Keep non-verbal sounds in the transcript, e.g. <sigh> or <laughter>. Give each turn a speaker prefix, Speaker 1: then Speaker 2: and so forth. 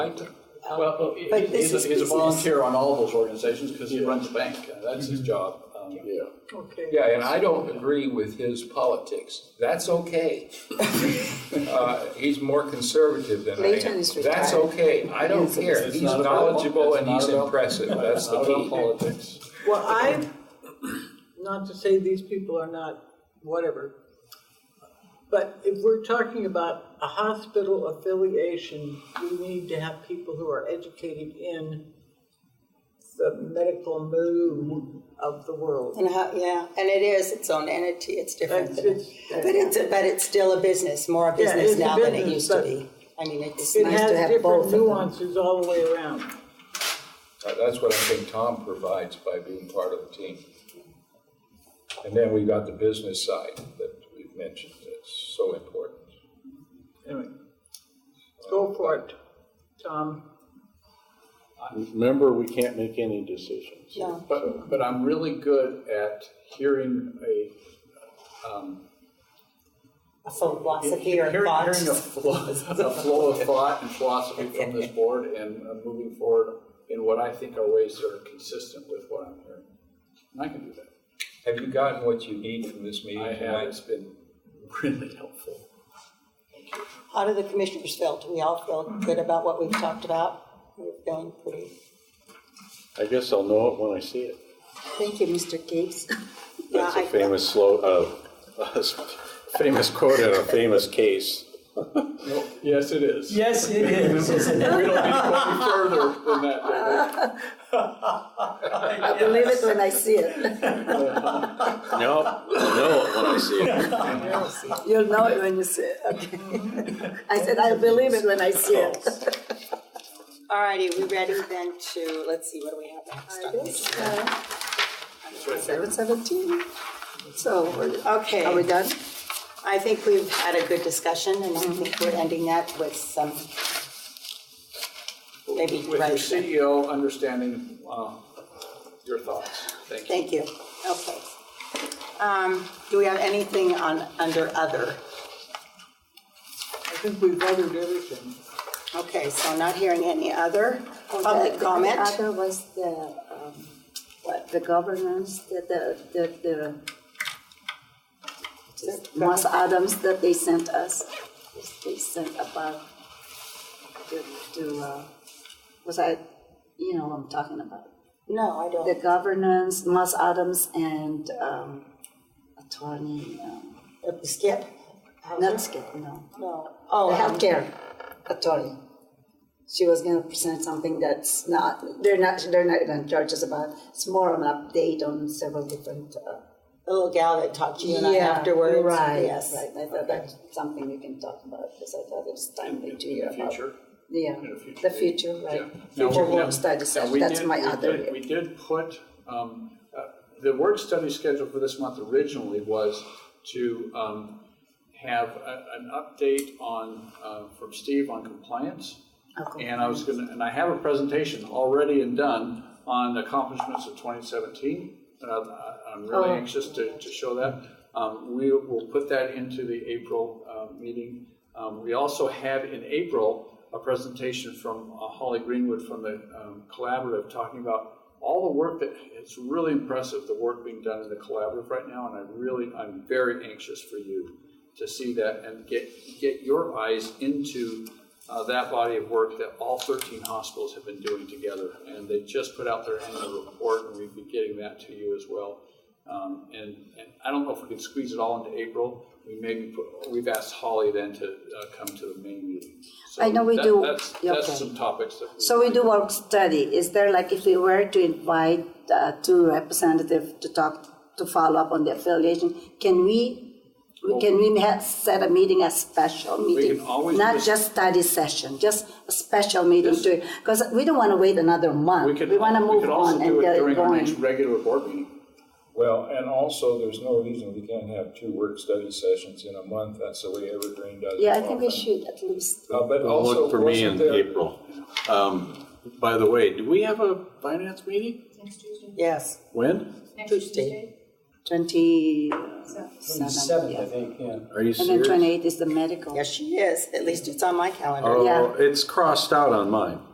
Speaker 1: Well, he-
Speaker 2: But this
Speaker 1: he's,
Speaker 2: is
Speaker 1: a- he's a
Speaker 2: business.
Speaker 1: volunteer on all those organizations because he runs the bank. Uh, That's his job. Um,
Speaker 3: Yeah.
Speaker 2: Okay.
Speaker 4: Yeah, and I don't agree with his politics. That's
Speaker 5: <laughs>
Speaker 4: okay. Uh, He's more conservative than I am.
Speaker 2: Layton is
Speaker 4: That's
Speaker 2: retired.
Speaker 4: okay. I don't care.
Speaker 1: It's
Speaker 4: He's
Speaker 1: not about-
Speaker 4: knowledgeable
Speaker 1: it's
Speaker 4: and
Speaker 1: not
Speaker 4: he's
Speaker 1: about-
Speaker 4: impressive. That's the
Speaker 1: not about
Speaker 4: key.
Speaker 1: Politics.
Speaker 2: Well, I, not to say these people are not whatever, but if we're talking about a hospital affiliation, we need to have people who are educated in the medical move of the world.
Speaker 6: And how, yeah, and it is its own entity, it's different.
Speaker 2: That's-
Speaker 6: But
Speaker 2: it's-
Speaker 6: it's, but it's still a business, more a
Speaker 2: Yeah, it's
Speaker 6: business
Speaker 2: a
Speaker 6: now than it
Speaker 2: business,
Speaker 6: used to
Speaker 2: but
Speaker 6: be. I mean, it's
Speaker 2: It
Speaker 6: nice
Speaker 2: has
Speaker 6: to have both
Speaker 2: different
Speaker 6: of them.
Speaker 2: nuances all the way around.
Speaker 4: Uh, That's what I think Tom provides by being part of the team. And then we've got the business side that we've mentioned. That's so important.
Speaker 2: Anyway, go for it, Tom.
Speaker 3: Remember, we can't make any decisions.
Speaker 6: No,
Speaker 1: But, but I'm really good at hearing a, um,
Speaker 6: a philosophy
Speaker 1: hearing,
Speaker 6: or
Speaker 1: hearing
Speaker 6: thought.
Speaker 1: a flow, <laughs> a flow of thought and philosophy from
Speaker 2: <laughs>
Speaker 1: this board and uh, moving forward in what I think are ways that are consistent with what I'm hearing. And I can do that.
Speaker 4: Have you gotten what you need from this meeting
Speaker 1: I have,
Speaker 4: tonight?
Speaker 1: it's been <laughs> really helpful.
Speaker 6: How do the commissioners feel? Do we all feel good about what we've talked about? We're feeling pretty.
Speaker 3: I guess I'll know it when I see it.
Speaker 6: Thank you, Mr. Gates. Yeah,
Speaker 3: That's a
Speaker 6: I,
Speaker 3: famous slow, uh, <laughs> famous quote in a famous case.
Speaker 1: Yes, it is.
Speaker 7: Yes, it is, isn't
Speaker 1: We
Speaker 7: it?
Speaker 1: don't need to go any further than that,
Speaker 5: <laughs>
Speaker 1: do we?
Speaker 7: Yes.
Speaker 6: it when I see it.
Speaker 3: No, I'll know it when I <laughs> see it.
Speaker 6: You'll know it when you see it, <laughs> okay. I said, I believe it when I see it. All righty, we ready then to, let's see, what do we have next? on the agenda? uh,
Speaker 5: Seven seventeen. So, we're-
Speaker 6: Okay.
Speaker 5: are we done?
Speaker 6: I think we've had a good discussion, and I think we're ending that with some, maybe,
Speaker 1: With your
Speaker 6: right,
Speaker 1: CEO understanding uh, your thoughts. Thank you.
Speaker 6: thank you, okay. Um, Do we have anything on, under other?
Speaker 2: I think we've covered everything.
Speaker 6: Okay, so not hearing any other public comment?
Speaker 5: Uh, The other was the, um, what, the governance, the, the, the, the just Moss Adams that they sent us, they sent about to, to, uh, was I, you know what I'm talking about?
Speaker 6: No, I
Speaker 5: The
Speaker 6: don't.
Speaker 5: governance, Moss Adams and, um, attorney, um,
Speaker 6: Uh, Skip?
Speaker 5: not Skip, no.
Speaker 6: No.
Speaker 5: the
Speaker 6: Oh,
Speaker 5: healthcare authority. She was gonna present something that's not, they're not, they're not gonna charge us about, it's more of an update on several different, uh.
Speaker 6: the little gal that talked to you and I afterwards?
Speaker 5: Right,
Speaker 6: Yes.
Speaker 5: right, I thought that's something we can talk about, because I thought it was timely
Speaker 1: In
Speaker 5: to hear
Speaker 1: the
Speaker 5: about.
Speaker 1: future.
Speaker 5: Yeah,
Speaker 1: in a future
Speaker 5: the
Speaker 1: date.
Speaker 5: future, right,
Speaker 1: Yeah. Now,
Speaker 5: future
Speaker 1: we- now-
Speaker 5: work study
Speaker 1: now,
Speaker 5: session,
Speaker 1: we
Speaker 5: that's
Speaker 1: did-
Speaker 5: my
Speaker 1: we
Speaker 5: other.
Speaker 1: did-
Speaker 5: area.
Speaker 1: We did put, um, uh, the work study schedule for this month originally was to um, have a- an update on, uh, from Steve on compliance.
Speaker 5: Okay.
Speaker 1: And I was gonna, and I have a presentation already and done on accomplishments of 2017. Uh, I- I'm really
Speaker 5: Oh.
Speaker 1: anxious to, to show that. Um, We will put that into the April uh, meeting. Um, We also had in April a presentation from uh, Holly Greenwood from the um, Collaborative talking about all the work that, it's really impressive, the work being done in the Collaborative right now. And I really, I'm very anxious for you to see that and get, get your eyes into uh, that body of work that all 13 hospitals have been doing together. And they just put out their annual report, and we'd be getting that to you as well. Um, and, and I don't know if we can squeeze it all into April. We maybe put, we've asked Holly then to uh, come to the main meeting. So
Speaker 5: I know we
Speaker 1: that-
Speaker 5: do.
Speaker 1: That's,
Speaker 5: Yeah,
Speaker 1: that's
Speaker 5: okay.
Speaker 1: some topics that.
Speaker 5: So we do work study, is there like, if we were to invite uh, two representatives to talk, to follow up on the affiliation, can we, can we ha- set a meeting, a special meeting?
Speaker 1: can always
Speaker 5: Not
Speaker 1: just-
Speaker 5: just study session, just a special meeting to, because we don't want to wait another month. We want to move on and get
Speaker 1: We could also do it
Speaker 5: it
Speaker 1: during our next
Speaker 5: going.
Speaker 1: regular board meeting.
Speaker 4: Well, and also, there's no reason we can't have two work study sessions in a month. That's the way Evergreen does it.
Speaker 5: Yeah, I think we
Speaker 4: often.
Speaker 5: should at least.
Speaker 4: Uh, But also,
Speaker 3: Look for me
Speaker 4: wasn't
Speaker 3: in
Speaker 4: there-
Speaker 3: April. Um, by the way, do we have a finance meeting?
Speaker 8: Next Tuesday?
Speaker 6: Yes.
Speaker 3: When?
Speaker 8: Next Tuesday?
Speaker 5: Twenty-seven,
Speaker 4: Seventh, I
Speaker 5: yeah.
Speaker 4: think, yeah.
Speaker 3: Are you
Speaker 5: And then
Speaker 3: serious?
Speaker 5: twenty-eight is the medical.
Speaker 6: Yes, she is. At least it's on my calendar.
Speaker 3: Oh,
Speaker 5: Yeah.
Speaker 3: it's crossed out on mine.